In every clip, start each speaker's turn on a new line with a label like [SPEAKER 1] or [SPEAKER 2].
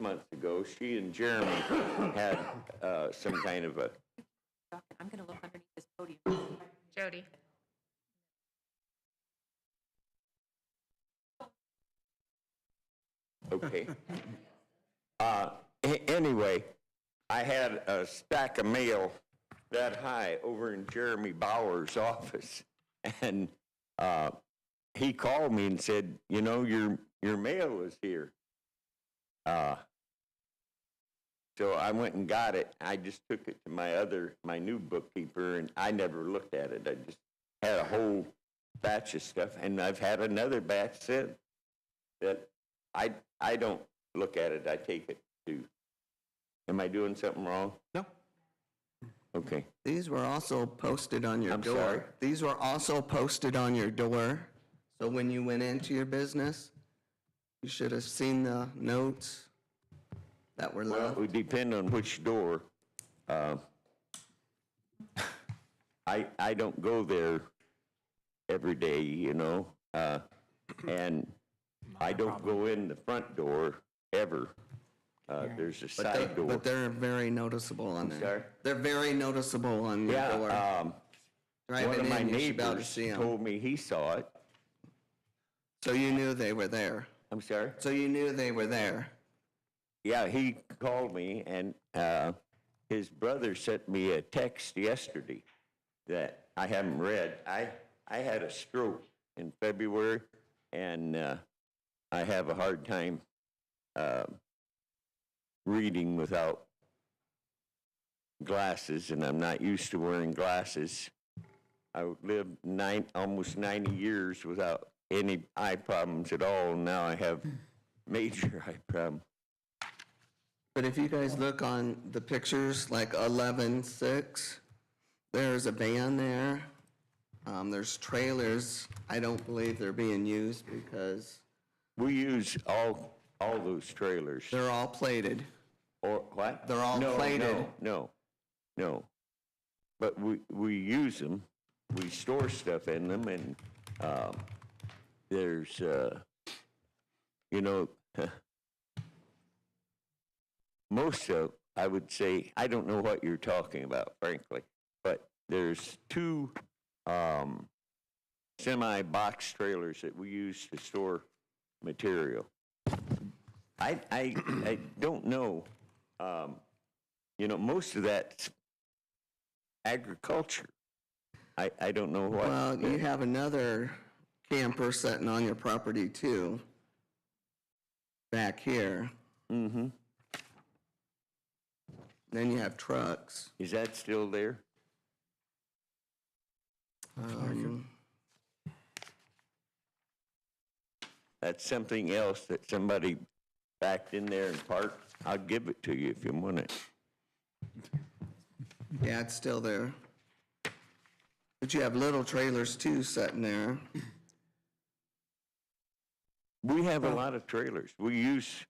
[SPEAKER 1] months ago, she and Jeremy had uh, some kind of a,
[SPEAKER 2] I'm going to look underneath this podium.
[SPEAKER 3] Jody.
[SPEAKER 1] okay. Uh, a- Anyway, I had a stack of mail that high over in Jeremy Bauer's office. And uh, he called me and said, you know, your, your mail is here. Uh, So I went and got it. I just took it to my other, my new bookkeeper, and I never looked at it. I just had a whole batch of stuff, and I've had another batch sent that I, I don't look at it. I take it to, am I doing something wrong?
[SPEAKER 4] No.
[SPEAKER 1] Okay.
[SPEAKER 4] These were also posted on your
[SPEAKER 1] I'm
[SPEAKER 4] door.
[SPEAKER 1] sorry?
[SPEAKER 4] These were also posted on your door. So when you went into your business, you should have seen the notes that were
[SPEAKER 1] Well, it
[SPEAKER 4] left.
[SPEAKER 1] would depend on which door. Uh, I, I don't go there every day, you know? uh, And I don't go in the front door ever. Uh, There's a
[SPEAKER 4] But they-
[SPEAKER 1] side door.
[SPEAKER 4] But they're very noticeable on there.
[SPEAKER 1] sorry?
[SPEAKER 4] They're very noticeable on your door.
[SPEAKER 1] Yeah, um, one
[SPEAKER 4] Driving
[SPEAKER 1] of my
[SPEAKER 4] in, you should be able to
[SPEAKER 1] neighbors
[SPEAKER 4] see 'em.
[SPEAKER 1] told me he saw it.
[SPEAKER 4] So you knew they were there.
[SPEAKER 1] I'm sorry?
[SPEAKER 4] So you knew they were there.
[SPEAKER 1] Yeah, he called me, and uh, his brother sent me a text yesterday that I haven't read. I I had a stroke in February, and uh, I have a hard time um reading without glasses, and I'm not used to wearing glasses. I lived nine almost 90 years without any eye problems at all. and Now I have major eye problems.
[SPEAKER 4] But if you guys look on the pictures, like eleven six, there's a van there. Um, there's trailers. I don't believe they're being used because
[SPEAKER 1] We use all, all those trailers.
[SPEAKER 4] they're all plated.
[SPEAKER 1] Or what?
[SPEAKER 4] They're all
[SPEAKER 1] No,
[SPEAKER 4] plated.
[SPEAKER 1] No, no, no. But we, we use them, we store stuff in them and, um, there's, uh, you know, most of, I would say, I don't know what you're talking about frankly, but there's two, um, semi box trailers that we use to store material. I, I, I don't know. Um, you know, most of that's agriculture. I, I don't know what.
[SPEAKER 4] Well, you have another camper sitting on your property too. Back here.
[SPEAKER 1] Mhm.
[SPEAKER 4] Then you have trucks.
[SPEAKER 1] Is that still there?
[SPEAKER 4] Um,
[SPEAKER 1] That's something else that somebody backed in there and parked. I'll give it to you if you want it.
[SPEAKER 4] yeah, it's still there. But you have little trailers too sitting there.
[SPEAKER 1] We have a lot of trailers. We use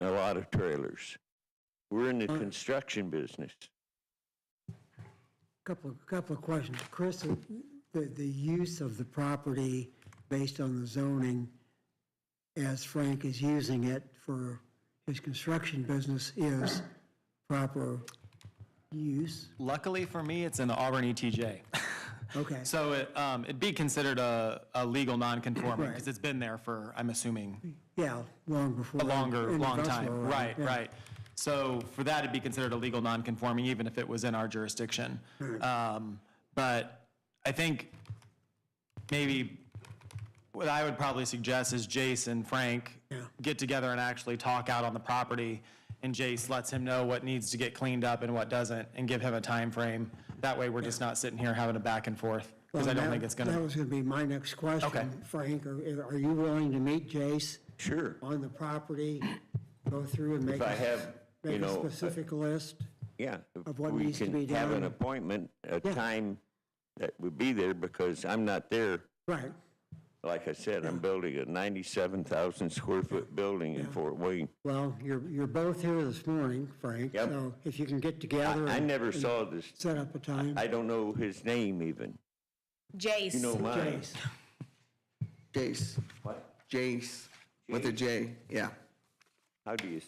[SPEAKER 1] a lot of trailers. We're in the construction business.
[SPEAKER 5] Couple, couple of questions. Chris, the, the use of the property based on the zoning as Frank is using it for his construction business is proper use?
[SPEAKER 6] Luckily for me, it's in the Auburn ETJ.
[SPEAKER 5] Okay,
[SPEAKER 6] So it, um, it'd be considered a, a legal non-conforming,
[SPEAKER 5] Right.
[SPEAKER 6] because it's been there for, I'm assuming,
[SPEAKER 5] yeah, long before.
[SPEAKER 6] a longer,
[SPEAKER 5] any of
[SPEAKER 6] long
[SPEAKER 5] us
[SPEAKER 6] time.
[SPEAKER 5] were around,
[SPEAKER 6] Right,
[SPEAKER 5] yeah.
[SPEAKER 6] right. So for that, it'd be considered a legal non-conforming, even if it was in our jurisdiction. Um, But I think maybe what I would probably suggest is Jace and Frank get together and actually talk out on the property, and Jace lets him know what needs to get cleaned up and what doesn't, and give him a time frame. That way, we're just not sitting here having a back and forth, because I
[SPEAKER 5] Well,
[SPEAKER 6] don't
[SPEAKER 5] that-
[SPEAKER 6] think it's
[SPEAKER 5] That
[SPEAKER 6] gonna,
[SPEAKER 5] was gonna be my next question.
[SPEAKER 6] Okay.
[SPEAKER 5] Frank, are, are you willing to meet Jace
[SPEAKER 1] Sure.
[SPEAKER 5] on the property, go through and make,
[SPEAKER 1] If I
[SPEAKER 5] a-
[SPEAKER 1] have, you
[SPEAKER 5] make a
[SPEAKER 1] know, uh,
[SPEAKER 5] specific list?
[SPEAKER 1] yeah. if
[SPEAKER 5] of what needs to be
[SPEAKER 1] We can have an
[SPEAKER 5] done.
[SPEAKER 1] appointment, a
[SPEAKER 5] Yeah.
[SPEAKER 1] time that would be there because I'm not there.
[SPEAKER 5] Right,
[SPEAKER 1] Like I said, I'm building a 97,000 square foot building in Fort Wayne.
[SPEAKER 5] well, you're, you're both here this morning, Frank,
[SPEAKER 1] Yep.
[SPEAKER 5] so if you can get
[SPEAKER 1] I
[SPEAKER 5] together
[SPEAKER 1] I
[SPEAKER 5] and
[SPEAKER 1] never saw this.
[SPEAKER 5] set up a time.
[SPEAKER 1] I don't know his name even.
[SPEAKER 3] Jace.
[SPEAKER 1] You know mine.
[SPEAKER 5] Jace,
[SPEAKER 4] Jace.
[SPEAKER 1] What?
[SPEAKER 4] Jace, with a J, yeah.
[SPEAKER 1] How do you